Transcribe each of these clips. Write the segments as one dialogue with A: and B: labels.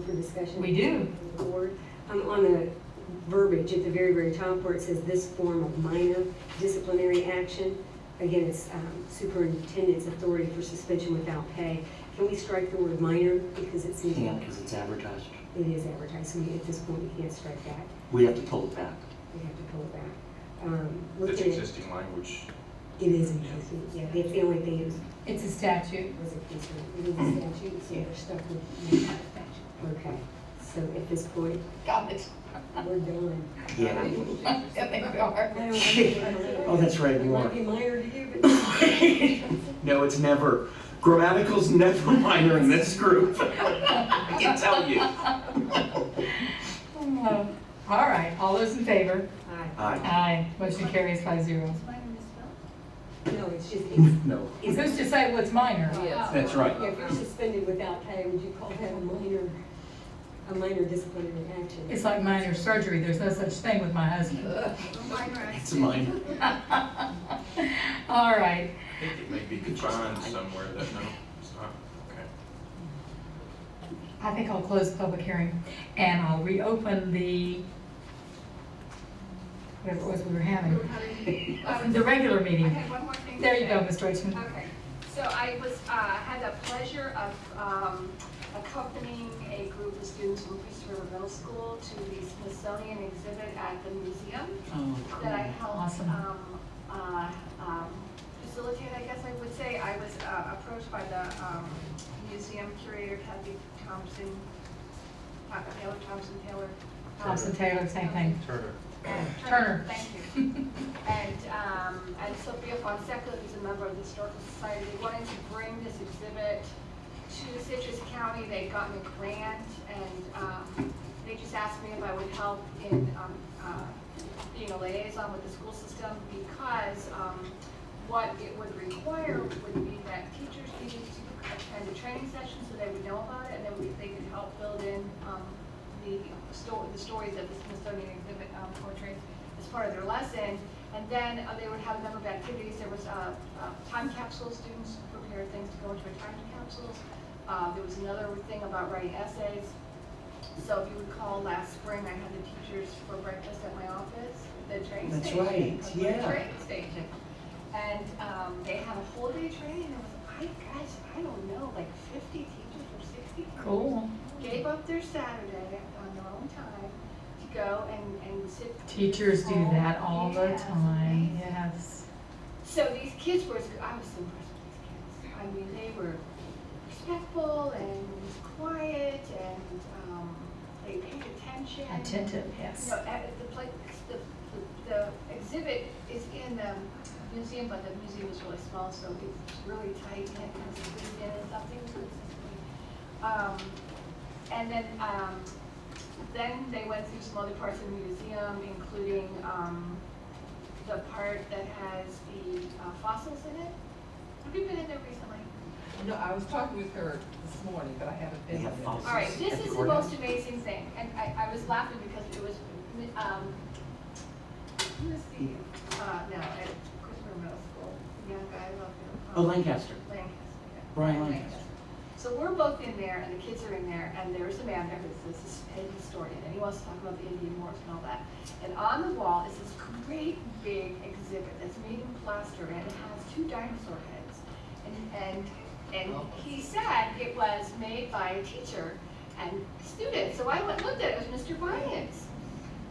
A: discussion?
B: We do.
A: with the Board, um, on the verbiage at the very, very top where it says this form of minor disciplinary action, again, it's, um, superintendent's authority for suspension without pay. Can we strike the word minor because it's in,
C: Can't
A: it
C: because it's advertised.
A: is advertised, so we, at this point, we can't strike that.
C: We have to pull it back.
A: We have to pull it back. Um,
D: That's
A: looking at,
D: existing language.
A: it is existing, yeah, that's the only thing that was
B: It's a statute.
A: was a concern, it is a statute, so we're stuck with. Okay, so at this point,
B: Got it.
A: we're done.
C: Yeah.
B: Yeah, they
A: I
B: are.
A: don't know.
C: Oh, that's right,
A: It
C: you are.
A: might be minor to you, but
C: No, it's never. Grammatical's never minor in this group. I can tell you.
B: Oh, All right, all those in favor?
C: Aye.
B: Aye. Motion carries five zero.
A: no, it's just, it's,
C: No,
B: Who's to say what's minor?
C: that's right.
A: yeah, if you're suspended without pay, would you call that a minor, a minor disciplinary action?
B: It's like minor surgery, there's no such thing with my husband.
C: It's a minor.
B: All right,
D: I think it may be defined somewhere that, no, it's not, okay.
B: I think I'll close the public hearing and I'll reopen the, whatever it was we were having, Um, the regular meeting.
E: Okay, one more thing. to
B: There you go,
E: say.
B: Ms. Deutschman.
E: Okay, so I was, uh, had the pleasure of um, accompanying a group of students from Priest River Middle School to the Smithsonian exhibit at the museum
C: Oh,
E: that I
C: cool.
E: helped
B: Awesome.
E: um, uh, um, facilitate, I guess I would say. I was uh, approached by the um, museum curator Kathy Thompson, uh, Taylor Thompson Taylor.
B: Thompson Taylor, same thing.
D: Turner.
B: Turner.
E: Thank you. And, um, and Sophia Fonseca, who's a member of the Historical Society, they wanted to bring this exhibit to Citrus County. They'd gotten a grant and, um, they just asked me if I would help in, um, uh, being a liaison with the school system because, um, what it would require would be that teachers needed to attend a training session so they would know about it and then we, they could help build in, um, the sto, the stories of the Smithsonian exhibit, um, portraits as part of their lesson. And then uh, they would have a number of activities. There was, uh, uh, time capsule, students prepared things to go into a time capsules. Uh, there was another thing about writing essays. So if you recall, last spring, I had the teachers for breakfast at my office, at the train
C: That's
E: station.
C: right,
E: at the
C: yeah.
E: Train station. And um, they had a whole day training, and it was, I, gosh, I don't know, like fifty teachers or sixty. teachers
B: Cool.
E: Gave up their Saturday on their own time to go and, and sit.
B: Teachers do that all the
E: Yes,
B: time,
E: amazing.
B: yes.
E: So these kids were, I was so impressed with these kids. I mean, they were respectful and quiet and um, they paid attention.
B: Attentive, yes.
E: No, at- the place, the, the the exhibit is in the museum, but the museum is really small, so it's really tight and it's squeezed in and something consistently. Um, and then, um, then they went through some other parts of the museum, including, um, the part that has the uh, fossils in it. Have you been in there recently?
F: No, I was talking with her this morning, but I haven't
C: They
F: been.
C: have
F: there.
C: fossils.
E: All right,
C: At
E: this
C: the
E: is the
C: courthouse.
E: most amazing thing, and I, I was laughing because it was, um, who is the, uh, no, at Christopher Middle School, the young guy, I love him.
C: Oh,
E: um,
C: Lancaster.
E: Lancaster. yeah.
C: Brian Lancaster.
E: So we're both in there, and the kids are in there, and there's a man there who's this his- a historian, and he wants to talk about the Indian wars and all that. And on the wall is this great big exhibit that's made in plaster, and it has two dinosaur heads. And, and, and he said it was made by a teacher and student, so I went, and looked at it, it was Mr. Bryant's.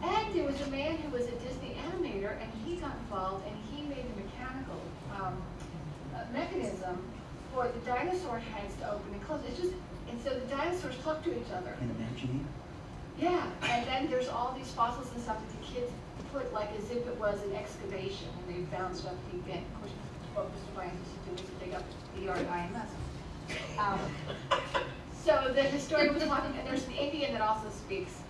E: And there was a man who was a Disney animator, and he got involved, and he made the mechanical, um, uh, mechanism for the dinosaur heads to open and close. It's just, and so the dinosaurs talk to each other.
C: And imagine
E: Yeah, and then there's all these fossils and stuff that the kids put like as if it was an excavation and they found stuff deep in. Of course, what Mr. Bryan used to do was dig up the yard IMS. Um, So the historian was talking, and there's an Indian that also speaks.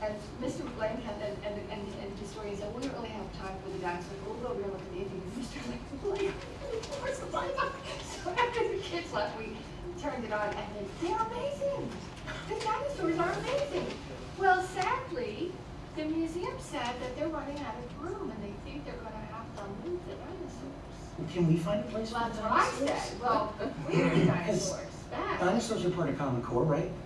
E: And Mr. Blankenham and, and, and and the historian said, we don't really have time for the dinosaurs, but we'll go real look at the Indian. And Mr. Blankenham, where's the Blankenham? So after the kids left, we turned it on and then, they're amazing. The dinosaurs are amazing. Well, sadly, the museum said that they're running out of room and they think they're gonna have to move the dinosaurs.
C: you. Can we find a place for
E: Well, that's what I
C: dinosaurs?
E: said. Well, we need dinosaurs back.
C: Dinosaurs are part of Common Core, right?